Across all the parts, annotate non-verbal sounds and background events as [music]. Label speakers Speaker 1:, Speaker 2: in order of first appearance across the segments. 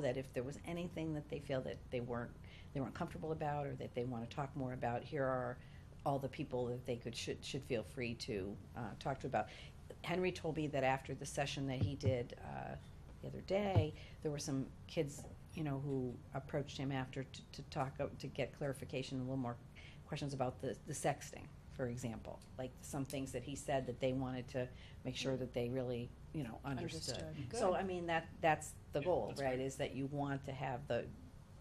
Speaker 1: that if there was anything that they feel that they weren't, they weren't comfortable about or that they want to talk more about, here are all the people that they could, should, should feel free to, uh, talk to about. Henry told me that after the session that he did, uh, the other day, there were some kids, you know, who approached him after to, to talk, uh, to get clarification, a little more questions about the, the sexting, for example. Like some things that he said that they wanted to make sure that they really, you know, understood. So, I mean, that, that's the
Speaker 2: Yeah,
Speaker 1: goal,
Speaker 2: that's
Speaker 1: right,
Speaker 2: great.
Speaker 1: is that you want to have the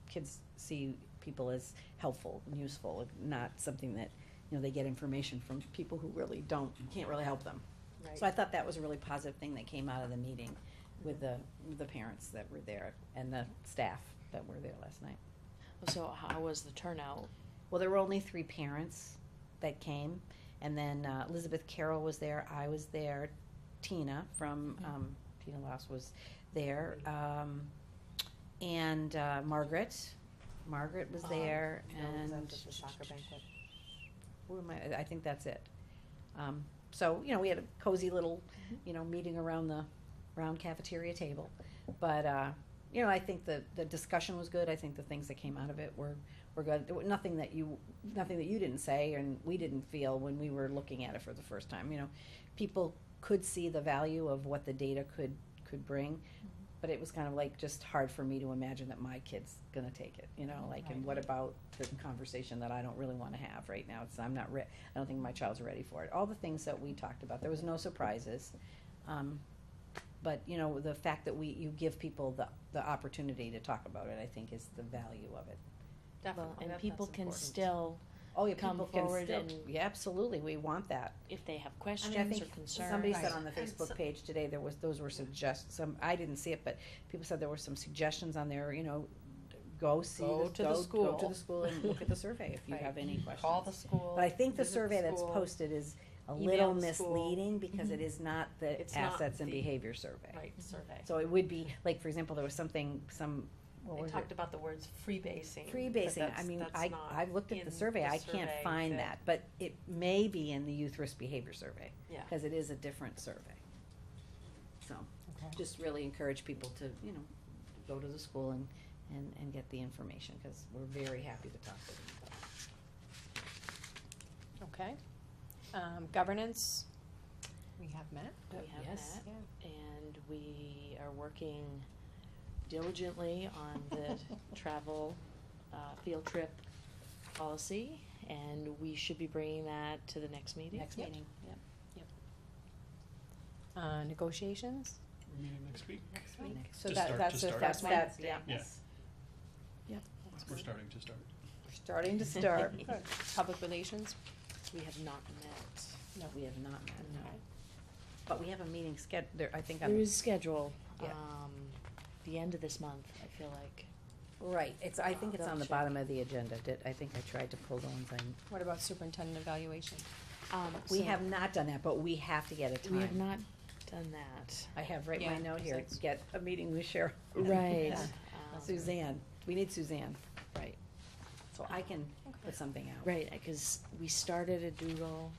Speaker 1: kids see people as helpful and useful, not something that, you know, they get information from people who really don't, can't really help them. So I thought that was a really positive thing that came out of the meeting with the, with the parents that were there and the staff that were there last night.
Speaker 3: So how was the turnout?
Speaker 1: Well, there were only three parents that came, and then uh, Elizabeth Carroll was there. I was there. Tina from um, Tina Laus was there, um, and uh, Margaret. Margaret was
Speaker 3: Um,
Speaker 1: there,
Speaker 3: no,
Speaker 1: and
Speaker 3: was that
Speaker 1: and
Speaker 3: just the soccer banquet?
Speaker 1: who am I? I think that's it. Um, so you know, we had a cozy little, you know, meeting around the round cafeteria table, but uh, you know, I think the the discussion was good. I think the things that came out of it were were good. There were nothing that you nothing that you didn't say and we didn't feel when we were looking at it for the first time. You know, people could see the value of what the data could could bring, but it was kind of like just hard for me to imagine that my kid's gonna take it. You know, like and what about the conversation that I don't really want to have right now? It's I'm not re- I don't think my child's ready for it. All the things that we talked about. There was no surprises. Um, but you know the fact that we you give people the, the opportunity to talk about it, I think, is the value of it.
Speaker 3: Well, and people can still,
Speaker 1: Oh, yeah,
Speaker 3: come
Speaker 1: people can
Speaker 3: forward
Speaker 1: still-
Speaker 3: and-
Speaker 1: yeah, absolutely, we want that.
Speaker 3: if they have
Speaker 1: I
Speaker 3: questions
Speaker 1: mean, I
Speaker 3: or
Speaker 1: think
Speaker 3: concerns.
Speaker 1: somebody said
Speaker 4: Right.
Speaker 1: on the
Speaker 4: And
Speaker 1: Facebook
Speaker 4: so-
Speaker 1: page today, there was, those were suggest, some, I didn't see it, but people said there were some suggestions on there, you know, go see,
Speaker 3: Go
Speaker 1: this-
Speaker 3: to the
Speaker 1: go, go to
Speaker 3: school.
Speaker 1: the school and look at the survey if you
Speaker 3: Right.
Speaker 1: have any questions.
Speaker 4: Call the school.
Speaker 1: But I think the
Speaker 4: visit the
Speaker 1: survey that's
Speaker 4: school,
Speaker 1: posted is a
Speaker 4: email
Speaker 1: little
Speaker 4: the school. Mm-hmm.
Speaker 1: misleading because it is not the
Speaker 4: It's not
Speaker 1: assets and
Speaker 4: the-
Speaker 1: behavior survey.
Speaker 4: Right, survey.
Speaker 1: So it would be, like, for example, there was something, some, what
Speaker 4: They
Speaker 1: was it?
Speaker 4: talked about the words free basing.
Speaker 1: Free
Speaker 4: but
Speaker 1: basing, I
Speaker 4: that's-
Speaker 1: mean,
Speaker 4: that's
Speaker 1: I,
Speaker 4: not
Speaker 1: I've looked at
Speaker 4: in
Speaker 1: the survey, I can't
Speaker 4: survey
Speaker 1: find that, but it may be in the youth risk behavior survey.
Speaker 4: Yeah.
Speaker 1: Cause it is a different survey. So, just really encourage people to, you know, go to the school and, and, and get the information, cause we're very happy to talk to them. about it.
Speaker 5: Okay. Um, governance? We have met.
Speaker 3: We have
Speaker 1: Yes.
Speaker 3: that, and we are working diligently on
Speaker 1: [laughs]
Speaker 3: the travel, uh, field trip policy. And we should be bringing that to the next meeting.
Speaker 1: Next
Speaker 5: Yep.
Speaker 1: meeting, yep.
Speaker 5: Uh, negotiations?
Speaker 2: We're meeting next week.
Speaker 4: Next
Speaker 1: week.
Speaker 5: So
Speaker 2: To
Speaker 5: that,
Speaker 2: start-
Speaker 5: that's the
Speaker 2: to start.
Speaker 5: first
Speaker 1: That's,
Speaker 5: one?
Speaker 1: that's, yeah,
Speaker 2: Yeah.
Speaker 5: That's
Speaker 2: We're
Speaker 5: good.
Speaker 2: starting to start.
Speaker 1: we're starting to [laughs] start.
Speaker 5: Public relations?
Speaker 3: We have not met.
Speaker 1: No, we have not, met, no,
Speaker 5: Okay.
Speaker 1: but we have a meeting sched, there, I think on
Speaker 3: There is schedule,
Speaker 1: Yeah.
Speaker 3: um, the end of this month, I feel like.
Speaker 1: Right, it's, I think it's on the
Speaker 3: Double check.
Speaker 1: bottom of the agenda, did, I think I tried to pull the ones I
Speaker 5: What about superintendent evaluation?
Speaker 3: Um,
Speaker 1: We
Speaker 3: so
Speaker 1: have not done that, but we have to get a
Speaker 3: We have
Speaker 1: time.
Speaker 3: not done that.
Speaker 1: I have right my
Speaker 5: Yeah,
Speaker 1: note here,
Speaker 5: because
Speaker 1: get a meeting with Cheryl.
Speaker 3: Right.
Speaker 1: Yeah.
Speaker 3: Um,
Speaker 1: Suzanne, we need Suzanne,
Speaker 3: Right,
Speaker 1: so I can put something out.
Speaker 3: right, because we started a doodle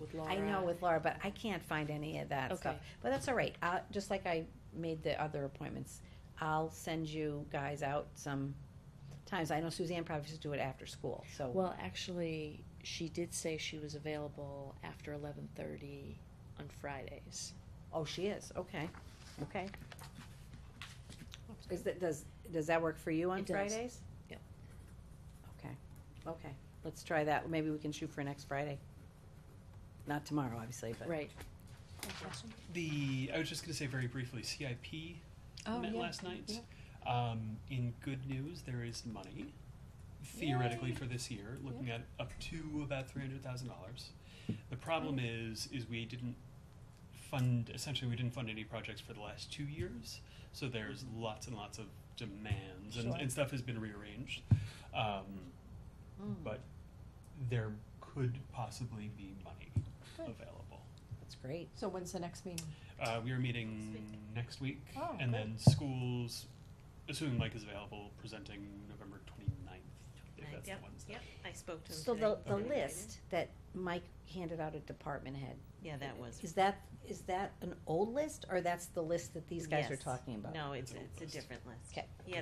Speaker 3: with Laura.
Speaker 1: I know with Laura, but I can't find any of that stuff.
Speaker 3: Okay.
Speaker 1: But that's all right, uh, just like I made the other appointments, I'll send you guys out some times. I know Suzanne probably just do it after school, so,
Speaker 3: Well, actually, she did say she was available after eleven thirty on Fridays.
Speaker 1: oh, she is, okay, okay. Is that, does, does that work for you on
Speaker 3: It does.
Speaker 1: Fridays?
Speaker 3: Yep.
Speaker 1: Okay, okay, let's try that, maybe we can shoot for next Friday. Not tomorrow, obviously, but.
Speaker 3: Right,
Speaker 2: The, I was just gonna say very briefly, CIP
Speaker 5: Oh,
Speaker 2: met
Speaker 5: yeah.
Speaker 2: last night. Um, in good news, there is money theoretically for this year, looking at up to about three hundred thousand dollars. The problem is, is we didn't fund, essentially, we didn't fund any projects for the last two years, so there's
Speaker 5: Mm-hmm.
Speaker 2: lots and lots of demands and, and stuff has been rearranged. Um,
Speaker 1: Mm,
Speaker 2: but there could possibly be money available.
Speaker 1: That's great.
Speaker 5: So when's the next meeting?
Speaker 2: Uh, we are meeting next week,
Speaker 5: Oh,
Speaker 2: and
Speaker 5: good.
Speaker 2: then schools, assuming Mike is available, presenting November 29th, if that's the Wednesday.
Speaker 4: I spoke
Speaker 1: So the, the list that Mike handed out a department head.
Speaker 6: Yeah, that was.
Speaker 1: Is that, is that an old list, or that's the list that these guys are
Speaker 6: Yes.
Speaker 1: talking about?
Speaker 6: No, it's,
Speaker 2: Oh, It's a
Speaker 6: it's a
Speaker 2: list.
Speaker 6: different list.
Speaker 1: Okay.
Speaker 6: Yeah,